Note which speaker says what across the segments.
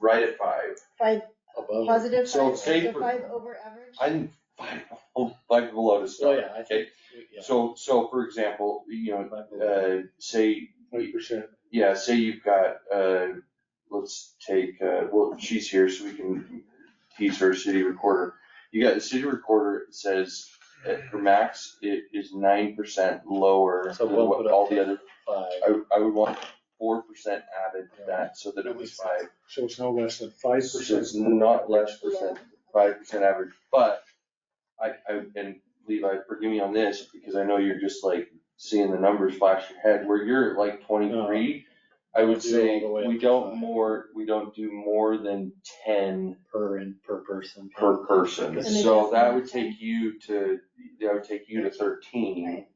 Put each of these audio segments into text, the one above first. Speaker 1: right at five.
Speaker 2: Five,
Speaker 3: above. it.
Speaker 2: positive
Speaker 1: So
Speaker 2: five,
Speaker 1: say
Speaker 2: so
Speaker 1: for-
Speaker 2: five over average?
Speaker 1: I'm five, five below to
Speaker 3: Oh,
Speaker 1: start.
Speaker 3: yeah, I
Speaker 1: Okay.
Speaker 3: think, yeah.
Speaker 1: So, so for example, you
Speaker 3: Five
Speaker 1: know,
Speaker 3: below.
Speaker 1: uh, say,
Speaker 3: Eight percent.
Speaker 1: yeah, say you've got, uh, let's take, uh, well, she's here so we can tease her city recorder. You got the city recorder it says that her max i- is nine percent lower
Speaker 3: So
Speaker 1: than
Speaker 3: we'll
Speaker 1: what
Speaker 3: put up
Speaker 1: all the
Speaker 3: to
Speaker 1: other,
Speaker 3: Five,
Speaker 1: I, I would want four percent added to
Speaker 3: Yeah.
Speaker 1: that so that it
Speaker 3: That
Speaker 1: was
Speaker 3: makes
Speaker 1: five.
Speaker 3: so it's no less than five
Speaker 1: So
Speaker 3: percent.
Speaker 1: it's not less percent five percent average, but I, I, and Levi, forgive me on this, because I know you're just like seeing the numbers flash your head, where you're at like twenty-three, I would
Speaker 3: Do all
Speaker 1: say
Speaker 3: the way
Speaker 1: we
Speaker 3: up to
Speaker 1: don't
Speaker 3: five.
Speaker 1: more, we don't do more than ten
Speaker 3: Per and per person.
Speaker 1: per person,
Speaker 2: And
Speaker 1: so
Speaker 2: it
Speaker 1: that
Speaker 2: doesn't
Speaker 1: would
Speaker 2: matter.
Speaker 1: take you to, that would take you to thirteen.
Speaker 2: Right.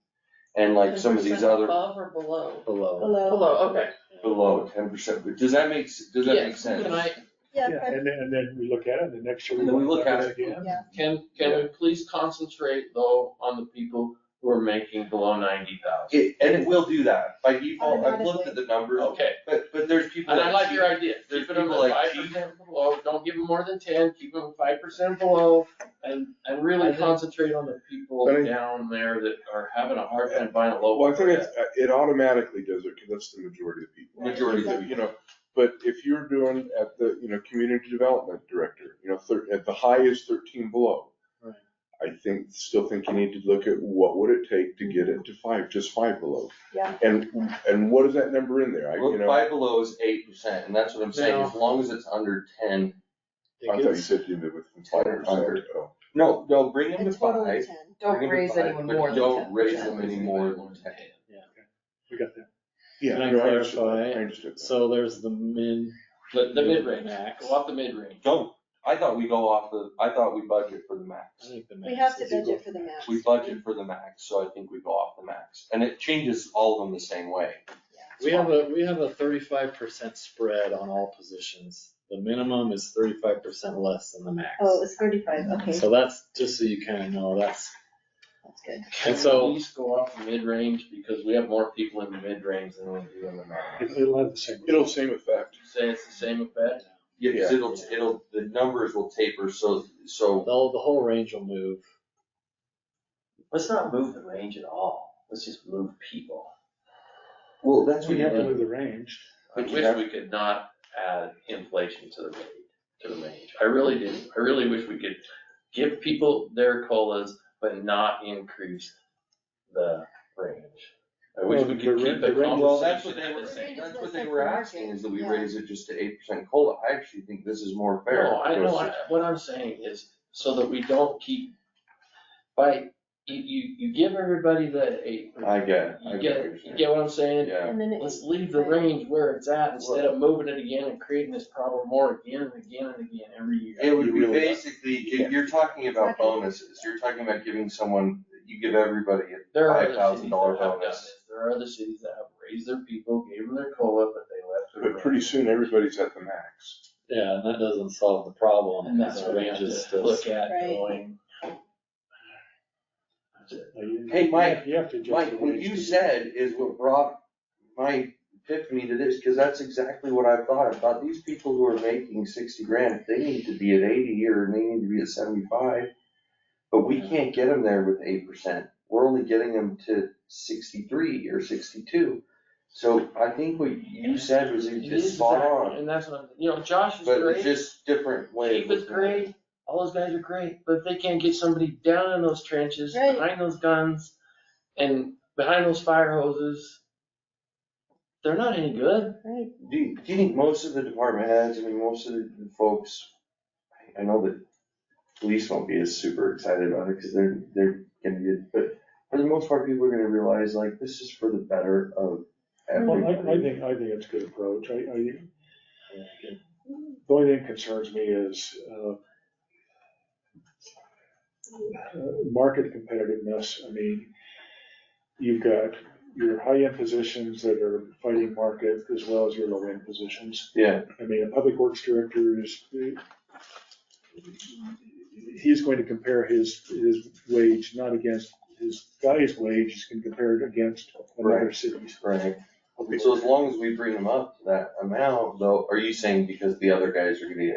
Speaker 1: And like some of these
Speaker 4: 10%
Speaker 1: other
Speaker 4: Above or below?
Speaker 3: Below.
Speaker 2: Below,
Speaker 4: Below, okay.
Speaker 1: below ten percent, does that make, s- does that
Speaker 4: Yeah,
Speaker 1: make sense?
Speaker 4: Can I,
Speaker 2: yeah,
Speaker 5: Yeah,
Speaker 2: five,
Speaker 5: and then, and then we look at it, and the next year.
Speaker 1: And then we look at it.
Speaker 5: again.
Speaker 2: yeah,
Speaker 4: can, can we please concentrate though on the people who are making below ninety thousand?
Speaker 1: It, and it will do that, by default, I've looked
Speaker 2: Automatically.
Speaker 1: at the numbers,
Speaker 4: Okay,
Speaker 1: but, but there's people.
Speaker 4: and I
Speaker 1: that
Speaker 4: like
Speaker 1: cheat.
Speaker 4: your idea,
Speaker 1: There's
Speaker 4: keep it on
Speaker 1: people
Speaker 4: the
Speaker 1: like
Speaker 4: five
Speaker 1: Keith.
Speaker 4: percent below, don't give them more than ten, keep them five percent below, and, and
Speaker 3: I
Speaker 4: really
Speaker 3: think-
Speaker 4: concentrate on the people
Speaker 6: But I-
Speaker 4: down there that are having a hard time buying a low.
Speaker 6: Well, I think it's, uh, it automatically does it, because that's the majority of people.
Speaker 1: Majority
Speaker 2: of
Speaker 6: You know, but if you're doing at the, you know, community development director, you know, thir- at the high is thirteen below.
Speaker 3: Right.
Speaker 6: I think, still think you need to look at what would it take to get it to five, just five below?
Speaker 2: Yeah.
Speaker 6: And, and what is that number in there? I,
Speaker 1: Well,
Speaker 6: you know, I
Speaker 1: five below is eight percent, and that's what I'm saying, as long as it's under ten.
Speaker 3: It
Speaker 6: thought you
Speaker 3: gets-
Speaker 6: said you did with five percent.
Speaker 1: Under. No, no, bring
Speaker 2: a
Speaker 1: him to
Speaker 2: total of
Speaker 1: five.
Speaker 2: ten.
Speaker 1: Bring him to five, but Don't raise them any more than ten.
Speaker 5: We got that.
Speaker 6: Yeah.
Speaker 3: Can I
Speaker 6: no, understood that.
Speaker 3: clarify?
Speaker 6: I understood that.
Speaker 3: So there's the min.
Speaker 4: The, the mid-range,
Speaker 3: Max.
Speaker 4: go up the mid-range.
Speaker 1: Don't, I thought we go off the, I thought we budget for the
Speaker 3: I
Speaker 1: max.
Speaker 3: think the
Speaker 2: We have
Speaker 3: max
Speaker 2: to
Speaker 3: is equal
Speaker 2: budget
Speaker 3: to
Speaker 2: for the max.
Speaker 1: We budget for the max, so I think we go off the max, and it changes all of them the same way.
Speaker 3: We have a, we have a thirty-five percent spread on all positions. The minimum is thirty-five percent less than the max.
Speaker 2: Oh, it's thirty-five, okay,
Speaker 3: So that's, just so you kind of know, that's,
Speaker 2: that's good.
Speaker 3: and
Speaker 4: Can we
Speaker 3: so,
Speaker 4: At least go off the mid-range, because we have more people in the mid-range than we do in the max.
Speaker 5: It- It'll have the same.
Speaker 6: It'll same effect.
Speaker 4: Say it's the same effect,
Speaker 1: Yeah, it
Speaker 6: Yeah.
Speaker 1: it'll, it'll, the numbers will taper, so, so.
Speaker 3: though the whole range will move.
Speaker 7: Let's not move the range at all. Let's just move people.
Speaker 1: Well,
Speaker 5: That's when you have to move the range.
Speaker 4: I
Speaker 1: But you
Speaker 4: wish
Speaker 1: have-
Speaker 4: we could not add inflation to the rate, to the range, I really do, I really wish we could give people their colas, but not increase the range. I wish we
Speaker 5: Well,
Speaker 4: could
Speaker 5: the
Speaker 4: keep
Speaker 5: ra-
Speaker 4: the
Speaker 5: the range-
Speaker 1: Well, that's what
Speaker 4: conversation
Speaker 1: they
Speaker 4: at
Speaker 1: were,
Speaker 4: the same.
Speaker 1: that's what they were asking, is that we raise it just to eight percent COLA, I actually think this is more fair.
Speaker 4: No, I know,
Speaker 1: because-
Speaker 4: I- what I'm saying is, so that we don't keep, by, you, you, you give everybody the eight,
Speaker 1: I get it. I
Speaker 4: you
Speaker 1: what you're
Speaker 4: get, you
Speaker 1: saying.
Speaker 4: get what I'm saying?
Speaker 1: Yeah,
Speaker 2: And then it,
Speaker 4: Let's leave the range where it's at instead of moving it again and creating this problem more again and again and again every year.
Speaker 1: it would
Speaker 6: You
Speaker 1: be
Speaker 6: really-
Speaker 1: basically, if you're talking about bonuses, you're talking about giving someone, you give everybody a
Speaker 4: There are
Speaker 1: five
Speaker 4: other
Speaker 1: thousand
Speaker 4: cities
Speaker 1: dollar
Speaker 4: that have done
Speaker 1: bonus.
Speaker 4: this. There are other cities that have raised their people, gave them their COLA, but they left.
Speaker 6: But pretty soon, everybody's at the max.
Speaker 3: Yeah, and that doesn't solve the problem.
Speaker 4: And that's
Speaker 3: The
Speaker 4: what we have
Speaker 3: range is
Speaker 4: to
Speaker 1: uh,
Speaker 3: still-
Speaker 4: look at
Speaker 2: Right.
Speaker 4: going.
Speaker 5: Now, you-
Speaker 1: Hey, Mike,
Speaker 5: You have to adjust.
Speaker 1: Mike,
Speaker 5: the
Speaker 1: what
Speaker 5: range
Speaker 1: you
Speaker 5: to-
Speaker 1: said is what brought my epiphany to this, because that's exactly what I thought. I thought these people who are making sixty grand, they need to be at eighty or they need to be at seventy-five. But we can't get them there with eight percent. We're only getting them to sixty-three or sixty-two. So I think what you said was
Speaker 4: It is
Speaker 1: just spot
Speaker 4: exactly-
Speaker 1: on,
Speaker 4: And that's what I'm, you know, Josh is
Speaker 1: but it's
Speaker 4: great,
Speaker 1: just different way. of
Speaker 4: Keith is
Speaker 1: looking at it.
Speaker 4: great, all those guys are great, but if they can't get somebody down in those trenches,
Speaker 2: Right.
Speaker 4: behind those guns and behind those fire hoses, they're not any good.
Speaker 2: right,
Speaker 1: Do you, do you think most of the department heads, I mean, most of the the folks, I- I know that police won't be as super excited about it, cause they're, they're gonna get, but for the most part, people are gonna realize like, this is for the better of
Speaker 5: Well, I, I
Speaker 1: everybody.
Speaker 5: think, I think it's a good approach. I, I, the only thing that concerns me is, uh, uh, market competitiveness. I mean, you've got your high-end positions that are fighting market as well as your low-end positions.
Speaker 1: Yeah,
Speaker 5: I mean, a public works director is, he's going to compare his, his wage not against his guy's wage, he's going to compare it against another city's.
Speaker 1: right. So as long as we bring them up to that amount, though, are you saying because the other guys are gonna get